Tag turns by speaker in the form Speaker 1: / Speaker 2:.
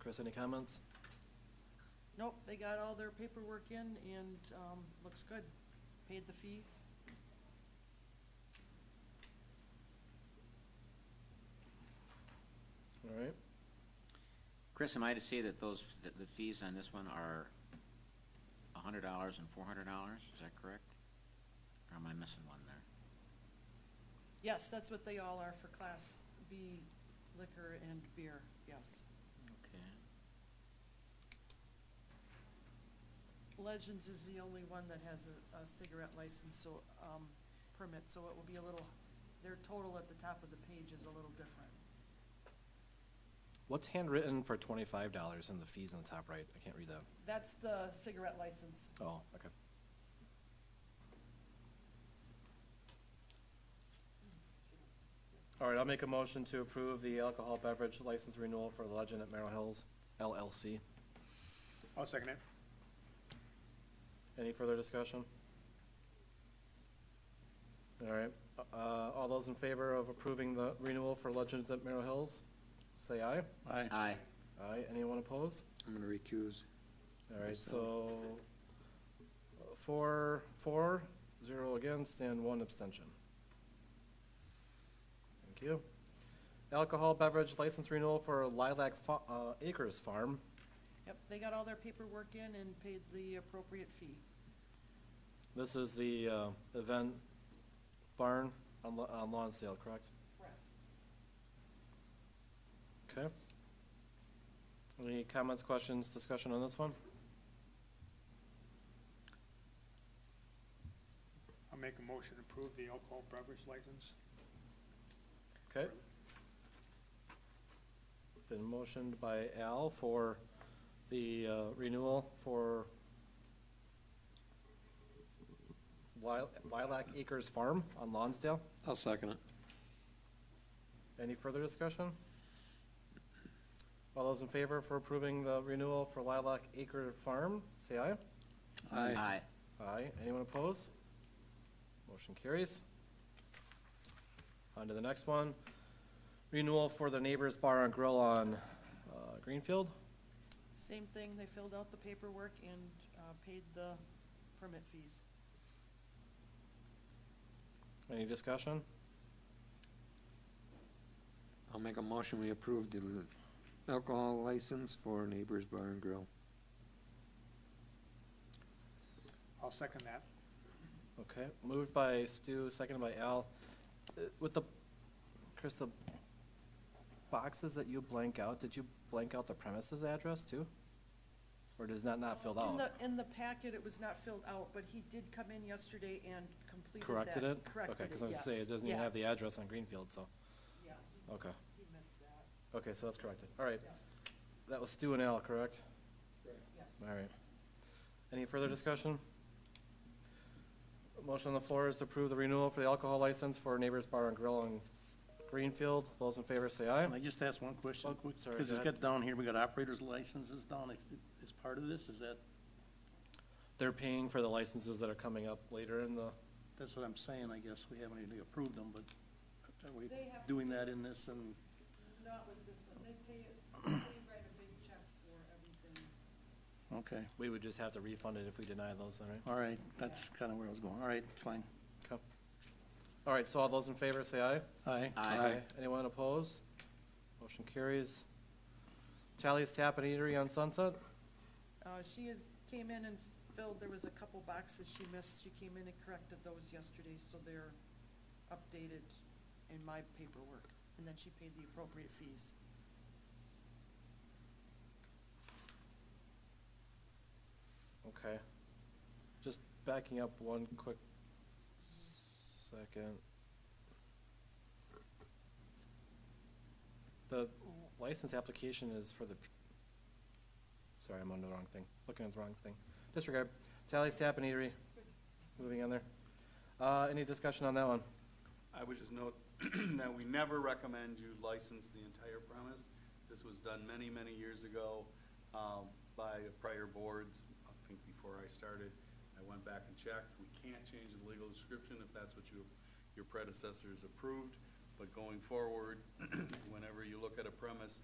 Speaker 1: Chris, any comments?
Speaker 2: Nope, they got all their paperwork in and, um, looks good. Paid the fee.
Speaker 1: All right.
Speaker 3: Chris, am I to say that those, that the fees on this one are a hundred dollars and four hundred dollars, is that correct? Or am I missing one there?
Speaker 2: Yes, that's what they all are for Class B liquor and beer, yes.
Speaker 3: Okay.
Speaker 2: Legends is the only one that has a, a cigarette license, so, um, permit, so it will be a little, their total at the top of the page is a little different.
Speaker 1: What's handwritten for twenty-five dollars and the fees on the top right? I can't read that.
Speaker 2: That's the cigarette license.
Speaker 1: Oh, okay. All right, I'll make a motion to approve the alcohol beverage license renewal for Legend at Merrill Hills LLC.
Speaker 4: I'll second it.
Speaker 1: Any further discussion? All right, uh, all those in favor of approving the renewal for Legends at Merrill Hills, say aye.
Speaker 4: Aye.
Speaker 3: Aye.
Speaker 1: Aye, anyone opposed?
Speaker 4: I'm gonna recuse.
Speaker 1: All right,
Speaker 4: Yes, sir.
Speaker 1: so uh, four, four, zero against, and one abstention. Thank you. Alcohol beverage license renewal for Lilac Fa- uh, Acres Farm.
Speaker 2: Yep, they got all their paperwork in and paid the appropriate fee.
Speaker 1: This is the uh, event barn on Lo- on Lonsdale, correct?
Speaker 2: Correct.
Speaker 1: Okay. Any comments, questions, discussion on this one?
Speaker 4: I'll make a motion to approve the alcohol beverage license.
Speaker 1: Okay. Been motioned by Al for the uh, renewal for Lil- Lilac Acres Farm on Lonsdale.
Speaker 5: I'll second it.
Speaker 1: Any further discussion? All those in favor for approving the renewal for Lilac Acre Farm, say aye.
Speaker 3: Aye.
Speaker 1: Aye. Anyone opposed? Motion carries. On to the next one. Renewal for the Neighbors Bar and Grill on uh, Greenfield.
Speaker 2: Same thing, they filled out the paperwork and, uh, paid the permit fees.
Speaker 1: Any discussion?
Speaker 5: I'll make a motion, we approve the l- alcohol license for Neighbors Bar and Grill.
Speaker 4: I'll second that.
Speaker 1: Okay, moved by Stu, seconded by Al. Uh, With the, Chris, the boxes that you blank out, did you blank out the premises address too? Or does that not filled
Speaker 2: In
Speaker 1: out?
Speaker 2: the, in the packet, it was not filled out, but he did come in yesterday and completed that.
Speaker 1: Corrected it?
Speaker 2: Corrected
Speaker 1: Okay,
Speaker 2: it,
Speaker 1: because I was gonna say,
Speaker 2: yes.
Speaker 1: it doesn't even
Speaker 2: Yeah,
Speaker 1: have the address on Greenfield, so,
Speaker 2: Yeah,
Speaker 1: okay.
Speaker 2: he missed that,
Speaker 1: Okay, so that's corrected. All right.
Speaker 2: Yeah.
Speaker 1: That was Stu and Al, correct?
Speaker 2: yes.
Speaker 1: All right. Any further discussion? Motion on the floor is to approve the renewal for the alcohol license for Neighbors Bar and Grill on Greenfield. Those in favor say aye.
Speaker 6: Can I just ask one question?
Speaker 1: Oh, sorry,
Speaker 6: Because
Speaker 1: go
Speaker 6: it's
Speaker 1: ahead.
Speaker 6: got down here, we got operators licenses down as- as part of this, is that,
Speaker 1: They're paying for the licenses that are coming up later in the,
Speaker 6: that's what I'm saying, I guess, we haven't even approved them, but are we
Speaker 2: They have-
Speaker 6: doing that in this and,
Speaker 2: Not with this one, they pay, it- they write a big check for everything.
Speaker 6: okay,
Speaker 1: we would just have to refund it if we deny those, then, right?
Speaker 6: all right, that's kind of where I was going, all right, fine,
Speaker 1: Okay. All right, so all those in favor say aye.
Speaker 6: aye.
Speaker 3: Aye.
Speaker 1: Anyone opposed? Motion carries. Tally's Tap and Eatery on Sunset?
Speaker 2: Uh, she is, came in and filled, there was a couple boxes she missed, she came in and corrected those yesterday, so they're updated in my paperwork, and then she paid the appropriate fees.
Speaker 1: Okay. Just backing up one quick second. The license application is for the, p- sorry, I'm on the wrong thing, looking at the wrong thing. Disregard. Tally's Tap and Eatery, moving on there. Uh, any discussion on that one?
Speaker 7: I would just note that we never recommend you license the entire premise. This was done many, many years ago um, by the prior boards, I think before I started. I went back and checked. We can't change the legal description if that's what you, your predecessors approved. But going forward, whenever you look at a premise,